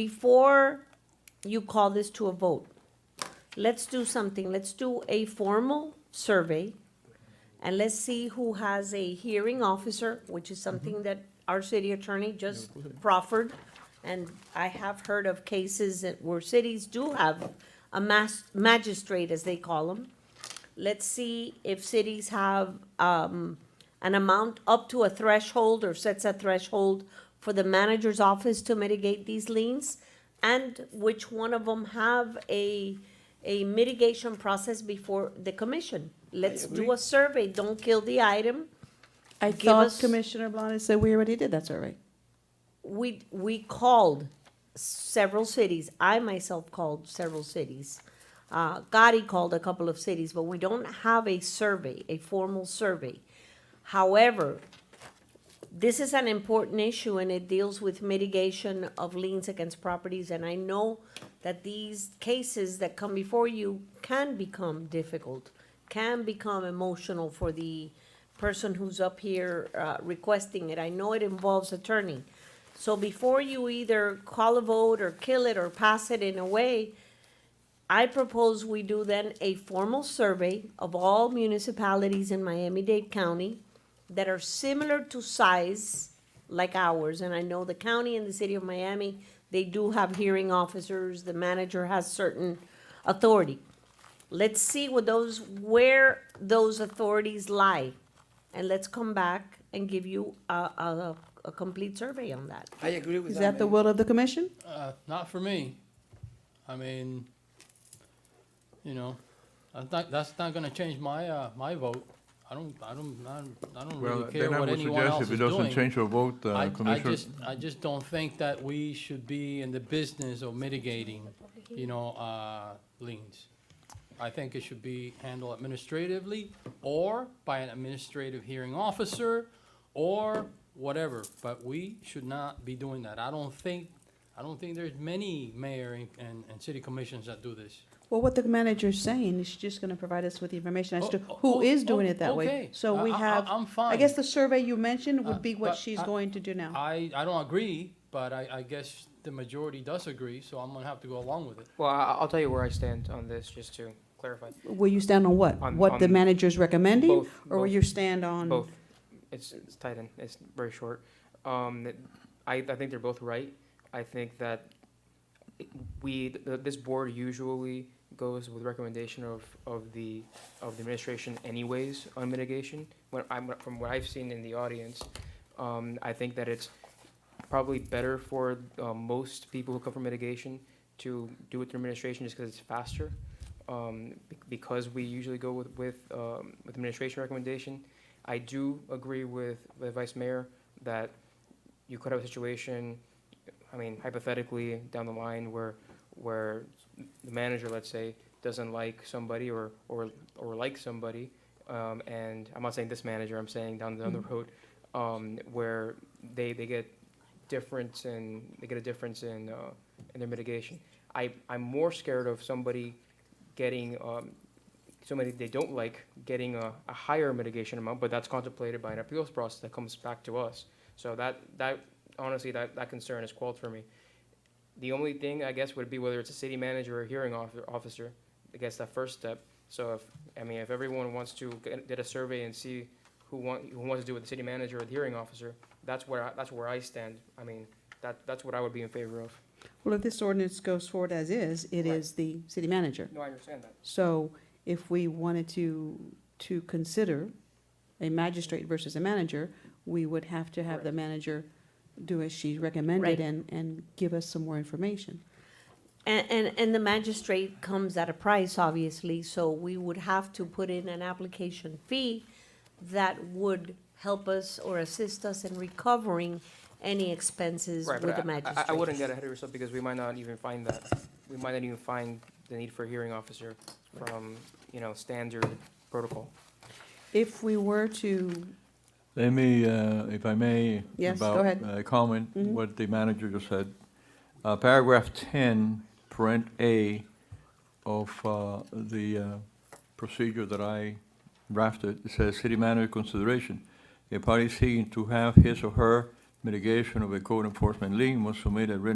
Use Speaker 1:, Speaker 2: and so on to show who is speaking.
Speaker 1: before you call this to a vote, let's do something. Let's do a formal survey and let's see who has a hearing officer, which is something that our city attorney just proffered. And I have heard of cases that where cities do have a mas- magistrate, as they call them. Let's see if cities have, um, an amount up to a threshold or sets a threshold for the manager's office to mitigate these liens? And which one of them have a, a mitigation process before the commission? Let's do a survey, don't kill the item.
Speaker 2: I
Speaker 1: Give
Speaker 2: thought
Speaker 1: us-
Speaker 2: Commissioner Blanes said we already did, that's all right.
Speaker 1: We, we called several cities, I myself called several cities. Uh, Gotti called a couple of cities, but we don't have a survey, a formal survey. However, this is an important issue and it deals with mitigation of liens against properties. And I know that these cases that come before you can become difficult, can become emotional for the person who's up here uh, requesting it. I know it involves attorney. So before you either call a vote or kill it or pass it in a way, I propose we do then a formal survey of all municipalities in Miami-Dade County that are similar to size like ours, and I know the county and the city of Miami, they do have hearing officers, the manager has certain authority. Let's see what those, where those authorities lie, and let's come back and give you a, a, a complete survey on that.
Speaker 3: I agree with
Speaker 2: Is
Speaker 3: that.
Speaker 2: that the
Speaker 3: Mayor.
Speaker 2: will of the commission?
Speaker 4: Uh, not for me. I mean, you know, I think that's not gonna change my, uh, my vote. I don't, I don't, I don't- I don't
Speaker 5: Well,
Speaker 4: really care
Speaker 5: then I
Speaker 4: what
Speaker 5: would
Speaker 4: anyone
Speaker 5: suggest
Speaker 4: else
Speaker 5: if it
Speaker 4: is
Speaker 5: doesn't
Speaker 4: doing.
Speaker 5: change your vote, uh,
Speaker 4: I, I
Speaker 5: Commissioner,
Speaker 4: just, I just don't think that we should be in the business of mitigating, you know, uh, liens. I think it should be handled administratively or by an administrative hearing officer or whatever, but we should not be doing that. I don't think, I don't think there's many mayor and, and, and city commissions that do this.
Speaker 2: Well, what the manager's saying, is she's just gonna provide us with the information as to
Speaker 4: Oh,
Speaker 2: who
Speaker 4: oh,
Speaker 2: is doing
Speaker 4: oh,
Speaker 2: it that way.
Speaker 4: okay.
Speaker 2: So
Speaker 4: I-
Speaker 2: we
Speaker 4: I- I-
Speaker 2: have,
Speaker 4: I'm
Speaker 2: I
Speaker 4: fine.
Speaker 2: guess the survey you mentioned
Speaker 4: Uh,
Speaker 2: would be what
Speaker 4: but
Speaker 2: she's
Speaker 4: I-
Speaker 2: going to do now.
Speaker 4: I, I don't agree, but I, I guess the majority does agree, so I'm gonna have to go along with it.
Speaker 6: Well, I- I'll tell you where I stand on this, just to clarify.
Speaker 2: Will you stand on what?
Speaker 6: On-
Speaker 2: What the
Speaker 6: on
Speaker 2: manager's recommending?
Speaker 6: both-
Speaker 2: Or will
Speaker 6: both.
Speaker 2: you stand on?
Speaker 6: Both. It's, it's tight end. It's very short. Um, th- I, I think they're both right. I think that it- we, th- this board usually goes with recommendation of, of the, of the administration anyways on mitigation. When I'm, from what I've seen in the audience, um, I think that it's probably better for, uh, most people who come from mitigation to do it through administration just because it's faster. Um, be- because we usually go with, with, um, with administration recommendation, I do agree with the vice mayor that you could have a situation, I mean hypothetically, down the line where, where the manager, let's say, doesn't like somebody or, or, or like somebody, um, and I'm not saying this manager, I'm saying down, down the road, um, where they, they get difference in, they get a difference in, uh, in their mitigation. I, I'm more scared of somebody getting, um, somebody they don't like getting a, a higher mitigation amount, but that's contemplated by an appeals process that comes back to us. So that, that, honestly, that, that concern is quelled for me. The only thing, I guess, would be whether it's a city manager or a hearing offi- officer, I guess that first step. So if, I mean, if everyone wants to get, get a survey and see who want, who wants to do with the city manager or the hearing officer, that's where, I- that's where I stand. I mean, that, that's what I would be in favor of.
Speaker 2: Well, if this ordinance goes forward as is, it
Speaker 6: Right.
Speaker 2: is the city manager.
Speaker 6: No, I understand that.
Speaker 2: So if we wanted to, to consider a magistrate versus a manager, we would have to have the
Speaker 6: Correct.
Speaker 2: manager do as she
Speaker 1: Right.
Speaker 2: recommended and, and give us some more information.
Speaker 1: And, and, and the magistrate comes at a price, obviously, so we would have to put in an application fee that would help us or assist us in recovering any expenses
Speaker 6: Right,
Speaker 1: with the
Speaker 6: but I- I,
Speaker 1: magistrate.
Speaker 6: I wouldn't get ahead of yourself because we might not even find that, we might not even find the need for a hearing officer from, you know, standard protocol.
Speaker 2: If we were to,
Speaker 5: let me, uh, if I may.
Speaker 2: Yes, go
Speaker 5: about,
Speaker 2: ahead.
Speaker 5: uh, Comment
Speaker 4: Mm-hmm.
Speaker 2: Mhm.
Speaker 5: what the manager just said. Uh, Paragraph 10, parent A of uh, the uh, procedure that I drafted, it says, "City manager consideration. A party seeking to have his or her mitigation of a code enforcement lien must submit a written